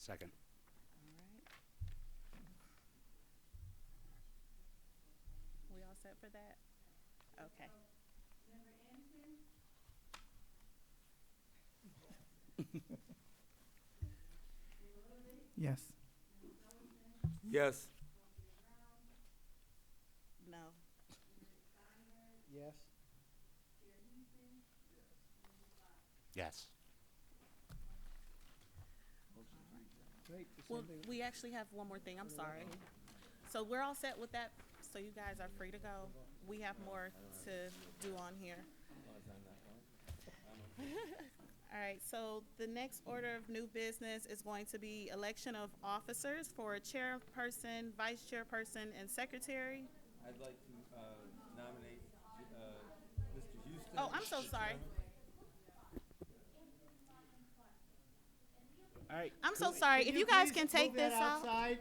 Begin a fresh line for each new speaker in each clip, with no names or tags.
Second.
We all set for that? Okay.
Yes.
Yes.
No.
Yes.
Yes.
Well, we actually have one more thing, I'm sorry. So we're all set with that, so you guys are free to go. We have more to do on here. All right, so the next order of new business is going to be election of officers for chairperson, vice chairperson, and secretary.
I'd like to uh, nominate uh, Mr. Houston.
Oh, I'm so sorry.
All right.
I'm so sorry. If you guys can take this out.
outside.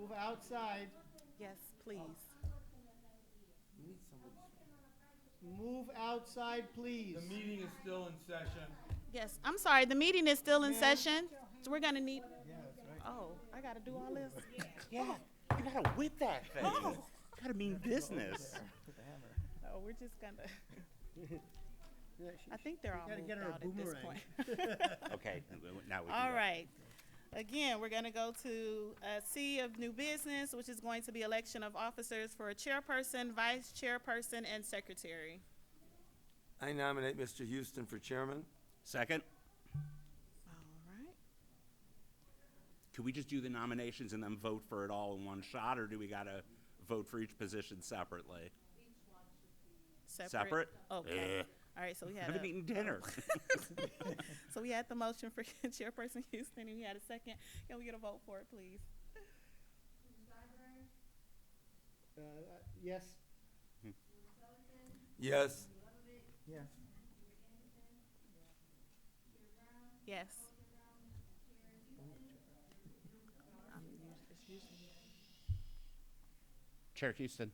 Move outside.
Yes, please.
We need somebody.
Move outside, please.
The meeting is still in session.
Yes, I'm sorry, the meeting is still in
Ma'am.
session, so we're gonna need,
Yeah, that's right.
oh, I gotta do all this?
Yeah. You gotta whip that thing. Gotta mean business.
Oh, we're just gonna,
Yeah, she-
I think they're all
gotta
moved
get her a
out at this
boomerang.
point.
Okay, n- w- now we can
All
go.
right. Again, we're gonna go to uh, C of new business, which is going to be election of officers for a chairperson, vice chairperson, and secretary.
I nominate Mster Houston for chairman.
Second,
All right.
could we just do the nominations and then vote for it all in one shot, or do we gotta vote for each position separately? Separate?
Okay.
Ugh.
All right, so we
I
had
haven't
a,
eaten dinner.
so we had the motion for chairperson Houston, and we had a second. Can we get a vote for it, please?
Uh, yes,
Yes.
yeah.
Yes. I'm us- it's usually-
Chair Houston,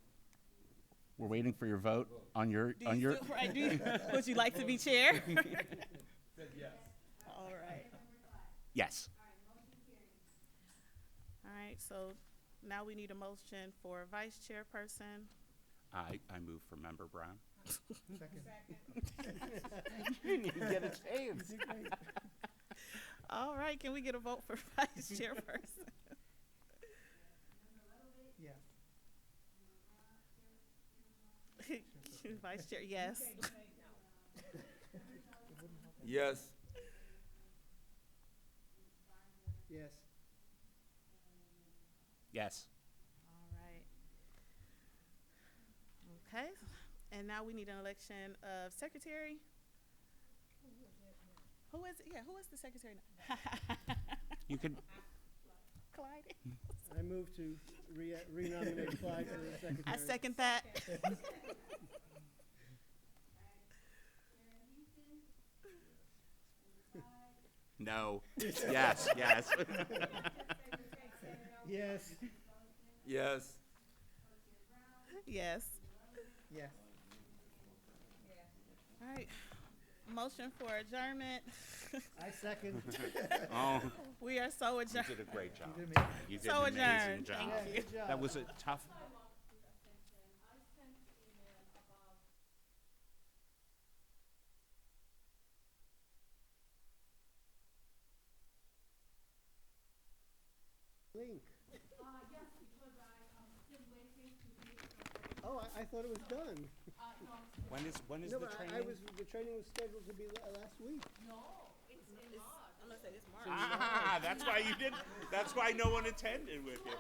we're waiting for your vote on your,
Do you still, right, do you, would you like to be chair?
Said yes.
All right.
Yes.
All right, so now we need a motion for vice chairperson.
I, I move for Member Brown.
Second.
Get a chance.
All right, can we get a vote for vice chairperson?
Yeah.
Vice chair, yes.
Yes.
Yes.
Yes.
All right. Okay, and now we need an election of secretary. Who is, it? yeah, who is the secretary? now?
You could,
Clyde?
I move to re- renominate Clyde for the secretary.
I second that.
no. Yes, yes.
Yes,
Yes.
Yes.
yes.
All right. Motion for adjournment.
I second.
Oh,
We are so
you
adjourned.
did a great job.
Did amazing.
You did
So
an amazing
adjourned.
job.
Thank you.
Yeah, good job.
That was a tough
Link. Oh, I, I thought it was done.
When is, when is
No,
the
but I- I
training?
was, the training was scheduled to be la- last week.
I'm gonna say it's March.
Ah, that's why you did, that's why no one attended with you.